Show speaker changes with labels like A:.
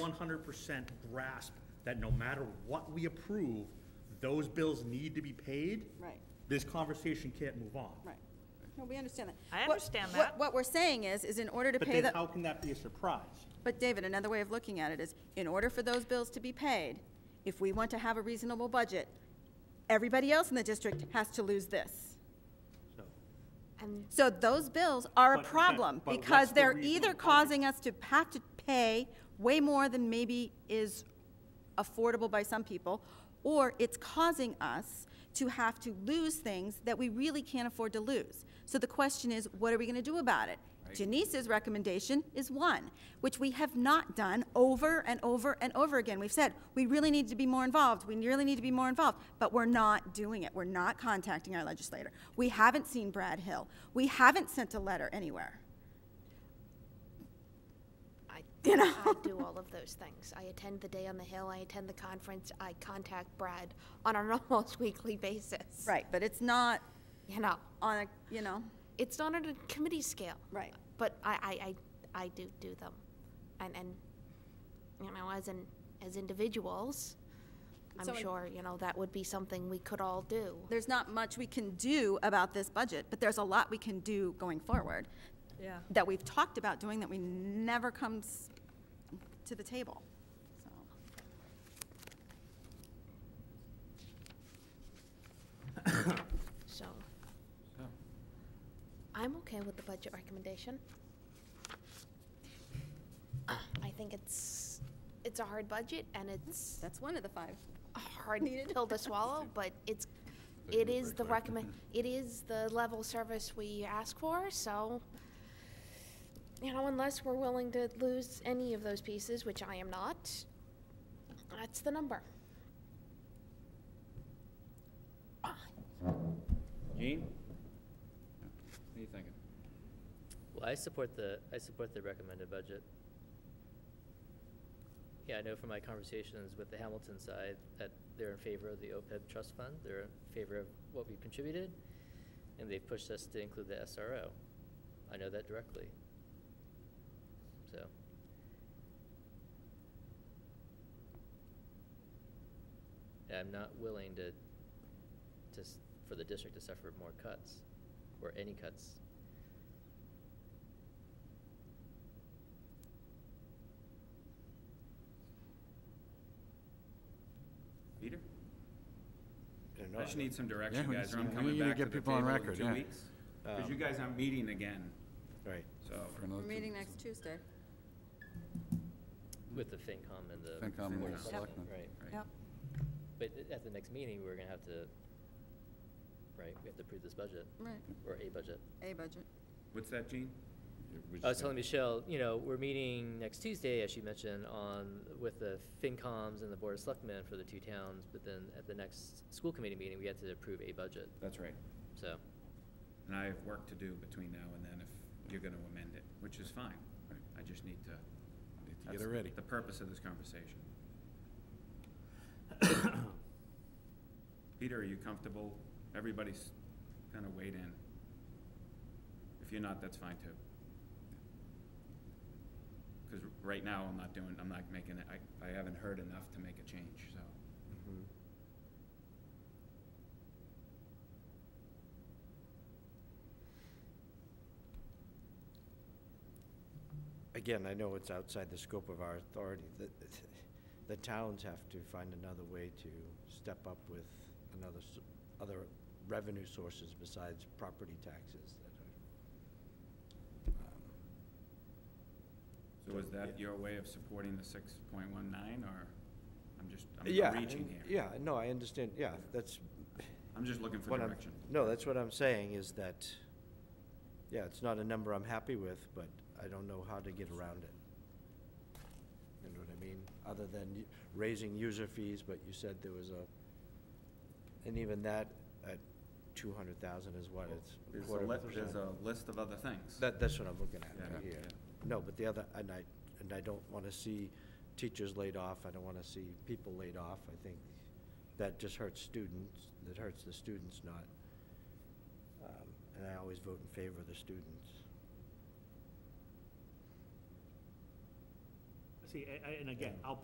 A: one hundred percent grasp that no matter what we approve, those bills need to be paid.
B: Right.
A: This conversation can't move on.
B: Right. No, we understand that.
C: I
B: What-
C: understand
B: what-
C: that.
B: What we're saying is, is in order to
A: But
B: pay
A: then
B: the,
A: how can that be a surprise?
B: but David, another way of looking at it is, in order for those bills to be paid, if we want to have a reasonable budget, everybody else in the district has to lose this.
A: So,
B: So those bills are a
A: But- but-
B: problem
A: but what's
B: because
A: the
B: they're
A: reasonable
B: either
A: budget?
B: causing us to have to pay way more than maybe is affordable by some people, or it's causing us to have to lose things that we really can't afford to lose. So the question is, what are we going to do about it? Janice's recommendation is one, which we have not done over and over and over again. We've said, we really need to be more involved, we really need to be more involved, but we're not doing it. We're not contacting our legislator. We haven't seen Brad Hill. We haven't sent a letter anywhere.
D: I,
B: You know?
D: I do all of those things. I attend the Day on the Hill, I attend the conference, I contact Brad on an almost weekly basis.
B: Right, but it's not
D: You know,
B: on a, you know,
D: it's not on a committee scale.
B: Right.
D: But I, I, I, I do do them. And, and, you know, as in, as individuals, I'm sure, you know, that would be something we could all do.
B: there's not much we can do about this budget, but there's a lot we can do going forward
C: Yeah.
B: that we've talked about doing that we never comes to the table. So,
D: So. I'm okay with the budget recommendation. I think it's, it's a hard budget and it's
B: That's one of the five.
D: a hard pill to swallow, but it's, it is the recommend, it is the level service we ask for, so, you know, unless we're willing to lose any of those pieces, which I am not, that's the number.
E: Gene? What are you thinking?
F: Well, I support the, I support the recommended budget. Yeah, I know from my conversations with the Hamilton side that they're in favor of the OPEB trust fund, they're in favor of what we've contributed, and they've pushed us to include the SRO. I know that directly. So, and I'm not willing to, to, s- for the district to suffer more cuts, or any cuts.
E: Peter? I
G: another-
E: just need some direction,
H: we
E: guys,
H: just
E: or I'm
H: need- we
E: coming
H: need to
E: back to
H: get
E: the
H: people on
E: table in
H: record,
E: two
H: yeah.
E: weeks. Because you guys aren't meeting again,
G: Right.
E: so.
H: for another
B: We're
H: two
B: meeting
H: weeks.
B: next Tuesday.
F: With the FinCom and the.
H: FinCom and the
F: Board of
H: Selectmen.
F: Selectmen, Right,
E: right.
B: Yep.
F: but a- at the next meeting, we're gonna have to, right, we have to approve this budget,
B: Right,
F: or a budget.
B: A budget.
E: What's that, Gene?
H: We just
F: I was
H: had-
F: telling Michelle, you know, we're meeting next Tuesday, as she mentioned, on, with the FinComs and the Board of Selectmen for the two towns, but then at the next school committee meeting, we have to approve a budget,
E: That's right.
F: so.
E: And I have work to do between now and then if you're gonna amend it, which is fine. I just need to.
H: Need to
E: that's
H: get it ready.
E: The purpose of this conversation. Peter, are you comfortable? Everybody's kind of weighed in. If you're not, that's fine too. Because right now, I'm not doing, I'm not making, it. I, I haven't heard enough to make a change, so.
G: Again, I know it's outside the scope of our authority. The, the towns have to find another way to step up with another, s- other revenue sources besides property taxes that are. um,
E: So is that
G: Yeah.
E: your way of supporting the six point one nine, or I'm just, I'm
G: Yeah,
E: I'm reaching
G: and-
E: here?
G: Yeah, no, I understand, yeah, that's.
E: I'm just looking for
G: what I'm-
E: direction.
G: No, that's what I'm saying is that, yeah, it's not a number I'm happy with, but I don't know how to get around it. You know what I mean? Other than y- raising user fees, but you said there was a, and even that at two hundred thousand is what, it's a
E: There's
G: quarter
E: a,
G: of a
E: li-
G: percent.
E: there's a list of other things.
G: That, that's what I'm looking at
E: Yeah,
G: right
E: yeah.
G: here. No, but the other, and I, and I don't wanna see teachers laid off, I don't wanna see people laid off, I think that just hurts students, that hurts the students, not, um, and I always vote in favor of the students.
A: see, a- a- and again, I'll